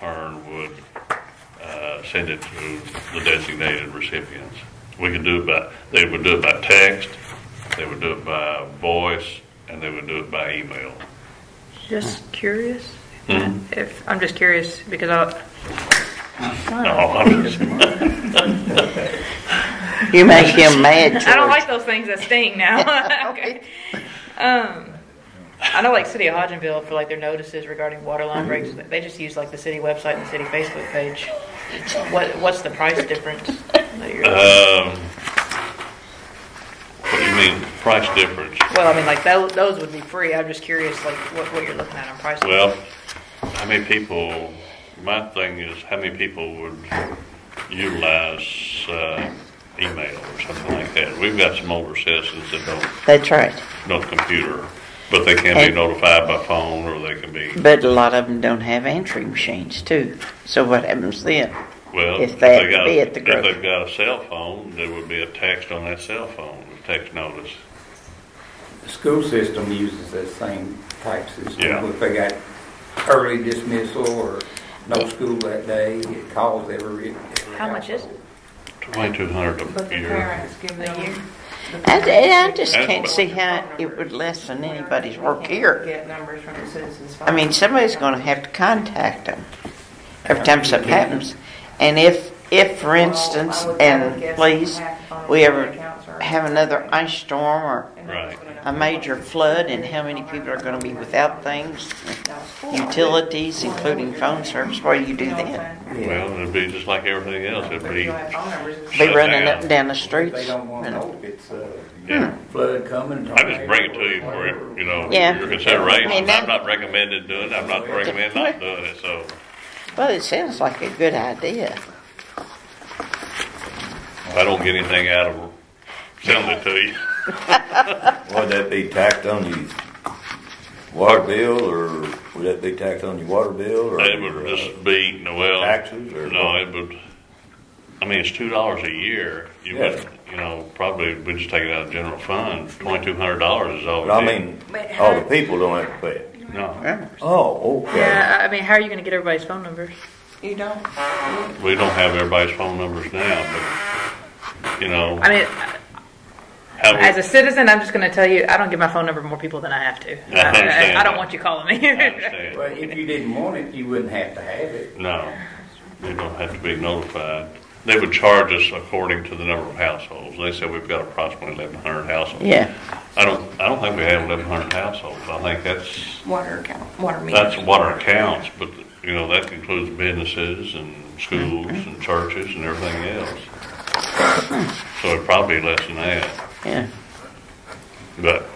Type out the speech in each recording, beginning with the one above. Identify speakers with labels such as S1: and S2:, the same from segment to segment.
S1: uh, send it to the designated recipients. We could do it by, they would do it by text, they would do it by voice, and they would do it by email.
S2: Just curious.
S1: Mhm.
S2: If I'm just curious because I.
S1: No, I'm just,
S3: You make him mad, George.
S2: I don't like those things that sting now. okay. Um, I know, like City of Hodgenville for like their notices regarding water
S1: Mm-hmm.
S2: line breaks, they just use like the city website and the city Facebook page. What what's the price difference? that you're-
S1: um, what do you mean, price difference?
S2: well, I mean, like those, those would be free. I'm just curious, like what, what you're looking at on price.
S1: Well, how many people, my thing is, how many people would utilize, uh, email or something like that? We've got some older citizens that don't
S3: That's right.
S1: no computer, but they can be
S3: And-
S1: notified by phone or they can be,
S3: But a lot of them don't have answering machines, too. So what happens then?
S1: well,
S3: If
S1: if
S3: they
S1: they got,
S3: be at
S1: if
S3: the grocery.
S1: they've got a cell phone, there would be a text on that cell phone, a text notice.
S4: The school system uses that same type
S1: Yeah.
S4: system. If they got early dismissal or no school that day, it calls every. every
S2: How much is it?
S1: Twenty-two hundred
S5: But
S1: a
S5: the
S1: year.
S5: parents give them.
S3: I, I just
S1: That's
S3: can't
S1: what-
S3: see how it would lessen anybody's work here.
S5: Get numbers from the citizens.
S3: I mean, somebody's going to have to contact them every time something happens. And if, if, for instance, and please, we ever have another ice storm or
S1: Right.
S3: a major flood, and how many people are going to be without things, utilities, including phone service, what do you do then?
S1: Well, it'd be just like everything else, it'd
S5: But
S1: be,
S5: you have phone numbers and
S3: Be
S1: Shut
S3: running
S1: down.
S3: up and down the streets.
S4: They don't want to
S3: and-
S4: know if it's uh,
S1: yeah.
S4: flood coming.
S1: I just bring it to you for, your, you know,
S3: Yeah.
S1: your
S3: I mean,
S1: consideration.
S3: that-
S1: I'm not recommending doing it, I'm not recommending not doing it, so.
S3: Well, it sounds like a good idea.
S1: If I don't get anything out of sending it to you,
S6: Would that be tacked on your water bill, or would that be tacked on your water bill, or? uh,
S1: it would just be, no, well.
S6: Taxes or?
S1: No, it would, I mean, it's two dollars a year, you
S6: Yeah.
S1: would, you know, probably, we just take it out of general fund, twenty-two hundred dollars is all.
S6: But I
S1: we do.
S6: mean, all the people don't have to pay it.
S1: No,
S3: Well,
S6: Oh, okay.
S2: Yeah, I mean, how are you going to get everybody's phone numbers?
S5: You don't,
S1: we don't have everybody's phone numbers now, but, you know,
S2: I mean,
S1: how,
S2: As a
S1: we-
S2: citizen, I'm just going to tell you, I don't give my phone number to more people than I have to.
S1: I understand
S2: I, I don't
S1: that.
S2: want you calling me.
S1: I understand,
S4: Well, if you didn't want it, you wouldn't have to have it.
S1: no, they don't have to be notified. They would charge us according to the number of households, they said we've got approximately eleven hundred households.
S3: Yeah.
S1: I don't, I don't think we have eleven hundred households, I think that's
S5: water account, water
S1: That's
S5: meters.
S1: water accounts, but, you know, that includes businesses and schools and churches and everything else. So it'd probably be less than that,
S3: Yeah.
S1: but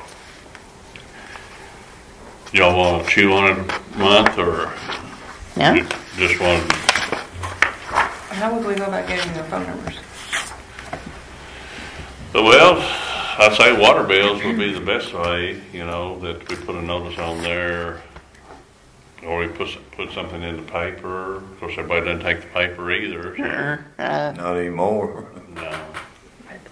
S1: y'all want to chew on it a month or
S3: No?
S1: ju- just want,
S5: How would we go about getting their phone numbers?
S1: well, I'd say water bills would be the best way, you know, that we put a notice on there or we put, s- put something in the paper. Of course, everybody doesn't take the paper either, so,
S3: Uh,
S6: Not anymore.
S1: no.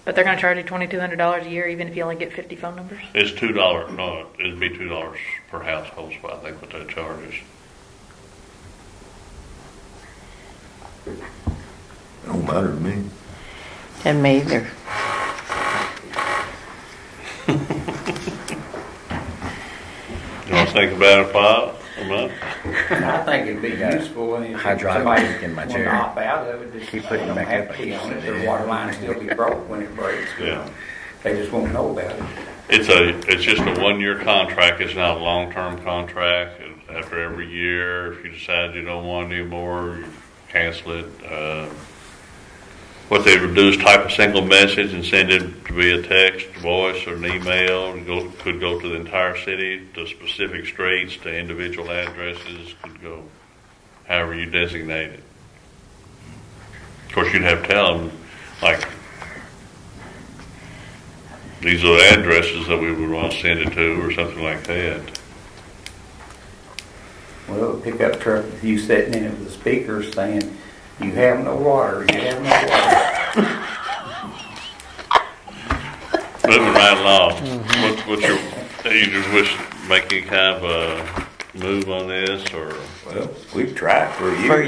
S2: But they're going to charge you $2,200 a year even if you only get 50 phone numbers?
S1: It's two dollars, no, it'd be two dollars per household, so I think what that charge is.
S6: Don't matter to me.
S3: and me either.
S1: You wanna think about it, Bob, a month?
S7: I think it'd
S4: It'd be
S7: be good.
S4: useful and if
S7: Hydraulic
S4: somebody
S7: leak in my
S4: wanna
S7: chair.
S4: opt out of it, just
S7: Keep putting it
S4: don't
S7: back
S4: have
S7: up.
S4: to key on it. Their water line still be broke when it breaks.
S1: Yeah.
S4: They just won't know about it.
S1: It's a, it's just a one-year contract, it's not a long-term contract, after every year, if you decide you don't want it anymore, you cancel it. Uh, What they would do is type a single message and send it to be a text, voice, or an email, It go, could go to the entire city, to specific streets, to individual addresses, could go however you designate it. Of course, you'd have to tell them, like, these are the addresses that we would want to send it to, or something like that.
S4: Well, a pickup truck, with you sitting in it with a speaker saying, you have no water, you have no water.
S1: Moving right along, what, what's your, you just wish, make any kind of a move on this, or?
S6: Well, we've tried for a year.
S3: For